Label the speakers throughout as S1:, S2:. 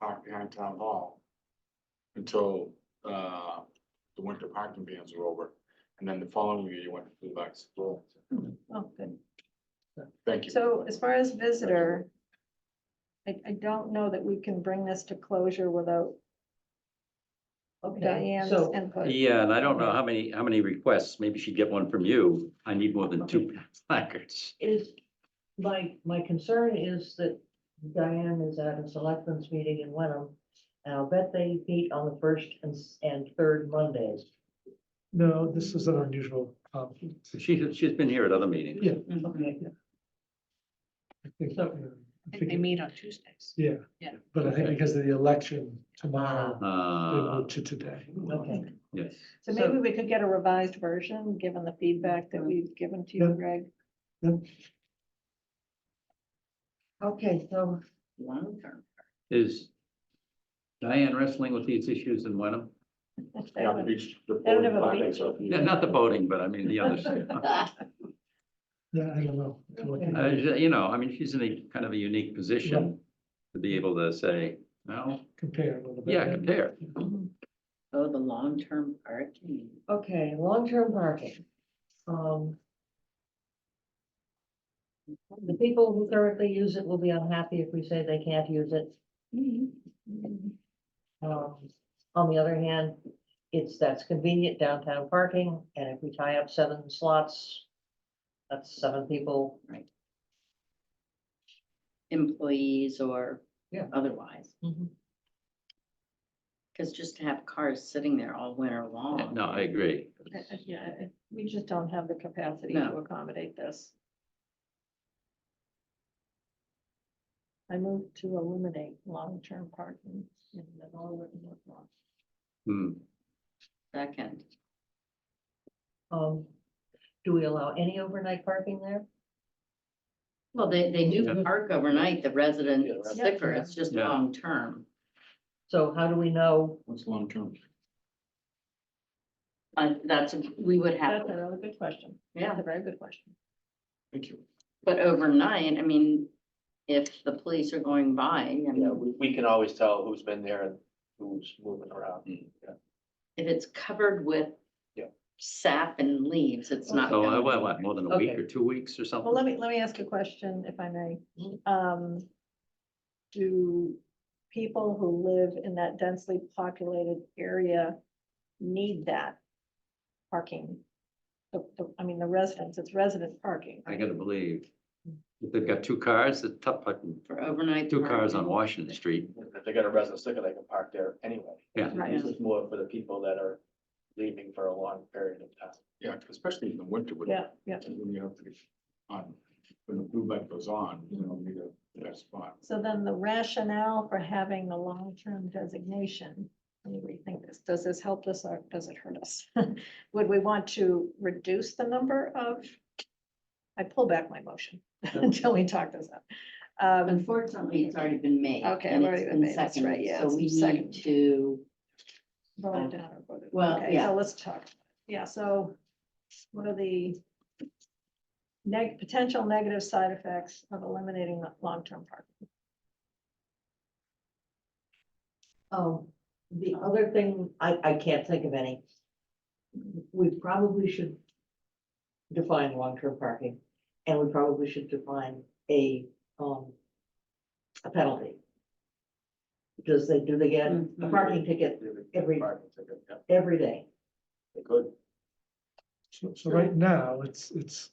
S1: parked behind town hall. Until, uh, the winter parking bans were over, and then the following year you went to the back to school.
S2: Oh, good.
S1: Thank you.
S2: So as far as visitor, I, I don't know that we can bring this to closure without
S3: Okay,
S2: Diane's
S3: so,
S2: input.
S4: Yeah, and I don't know how many, how many requests, maybe she'd get one from you, I need more than two placards.
S3: is, my, my concern is that Diane is at a selectmen's meeting in Wenham. And I'll bet they meet on the first and, s- and third Mondays.
S5: No, this is an unusual conflict.
S4: She, she's been here at other meetings.
S5: Yeah.
S3: Okay,
S5: I think,
S3: So-
S5: I
S6: They
S5: think-
S6: meet on Tuesdays.
S5: Yeah.
S6: Yeah.
S5: But I think because of the election tomorrow, they
S6: Ah.
S4: Uh,
S5: moved to today.
S3: okay.
S4: yes,
S2: So maybe we could get a revised version, given the feedback that we've given to you,
S5: Yeah.
S2: Greg.
S3: Okay, so,
S6: Long term.
S4: is Diane wrestling with these issues in Wenham?
S1: Yeah, the beach. the
S2: um, I don't have a
S1: boarding
S2: beach.
S1: parking, so if you-
S4: Yeah, Not the voting, but I mean the others.
S5: Yeah, I don't know. I'm looking
S4: Uh,
S5: at it.
S4: You know, I mean, she's in a kind of a unique position to be able to say, no,
S5: Compare a little bit.
S4: yeah, compare.
S6: Oh, the long term parking.
S3: okay, long-term parking. Um. The people who currently use it will be unhappy if we say they can't use it. Um, on the other hand, it's, that's convenient downtown parking, and if we tie up seven slots, that's seven people.
S6: Employees or
S3: Yeah.
S6: otherwise, because just to have cars sitting there all winter long.
S4: No, I agree.
S2: I- I- Yeah, I- we just don't have the capacity to
S6: No.
S2: accommodate this. I move to eliminate long-term parking in the Norwood and North Lawn.
S4: Hmm.
S6: Second,
S3: Um, do we allow any overnight parking there?
S6: well, they, they do
S4: Yeah.
S6: park overnight, the resident
S1: Yeah, that's-
S6: sticker, it's just
S4: Yeah.
S6: long term.
S3: So how do we know?
S1: What's long term?
S6: Uh, that's, we would have,
S2: That's a really good question.
S6: yeah,
S2: That's a very good question.
S1: Thank you.
S6: but overnight, I mean, if the police are going by, I
S7: Yeah,
S6: mean,
S7: we, we can always tell who's been there and who's moving around.
S6: if it's covered with
S7: Yeah.
S6: sap and leaves, it's not.
S4: So,
S6: gonna
S4: uh,
S6: be-
S4: what, what, more than a week
S3: Okay.
S4: or two weeks or something?
S2: Well, let me, let me ask a question, if I may.
S4: Mm-hmm.
S2: Um, do people who live in that densely populated area need that parking? The- the- I mean, the residents, it's resident parking.
S4: I gotta believe. If they've got two cars, it's tough, putting
S6: For overnight.
S4: Hmm. two cars on
S6: parking.
S4: Washington Street.
S7: If they got a resident sticker, they can park there anyway.
S4: Yeah.
S2: Right.
S7: This is more for the people that are leaving for a long period of time.
S1: Yeah, especially in the winter when,
S2: Yeah, yeah.
S1: when you have to be on, when the blue light goes on, you know, you got that spot.
S2: So then the rationale for having the long-term designation, let me rethink this, does this help us or does it hurt us? Would we want to reduce the number of? I pull back my motion until we talk this out. Um,
S6: Unfortunately, it's already been made.
S2: Okay,
S6: and
S2: I've already
S6: it's
S2: been
S6: been
S2: made, that's right,
S6: seconded,
S2: yeah,
S6: So
S2: it's
S6: we
S2: second.
S6: need to,
S2: vote it down or vote it-
S6: Well,
S2: okay,
S6: yeah.
S2: So let's talk, yeah, so what are the neg, potential negative side effects of eliminating the long-term parking?
S3: Um, the other thing, I, I can't think of any. We probably should define long-term parking, and we probably should define a, um, a penalty. Because they, do they get a
S6: Mhm.
S3: parking ticket Every-
S7: Parking ticket, yeah,
S3: every day?
S7: they could.
S5: So, so right now, it's, it's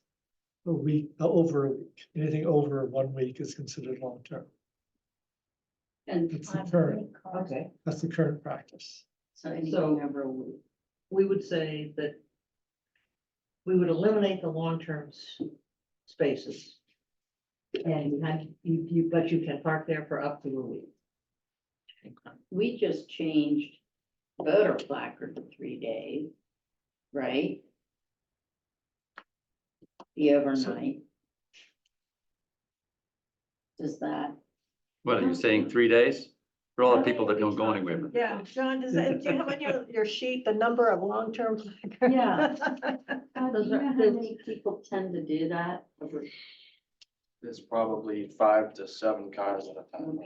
S5: a week, uh, over a week. Anything over one week is considered long-term.
S6: and
S5: It's the current,
S3: Okay.
S5: that's the current practice.
S6: so anything
S3: So-
S6: over a week.
S3: we would say that we would eliminate the long-term s- spaces. And you have, you, you, but you can park there for up to a week.
S6: We just changed voter placard to three days, right? The overnight. Does that,
S4: What are you saying, three days? For all the people that don't go anywhere.
S2: Yeah, John, does that, do you have on your, your sheet the number of long-term?
S6: Yeah. Uh, do
S3: Those
S6: you know
S3: are-
S6: how
S3: those-
S6: many people tend to do that?
S7: There's probably five to seven cars at a time.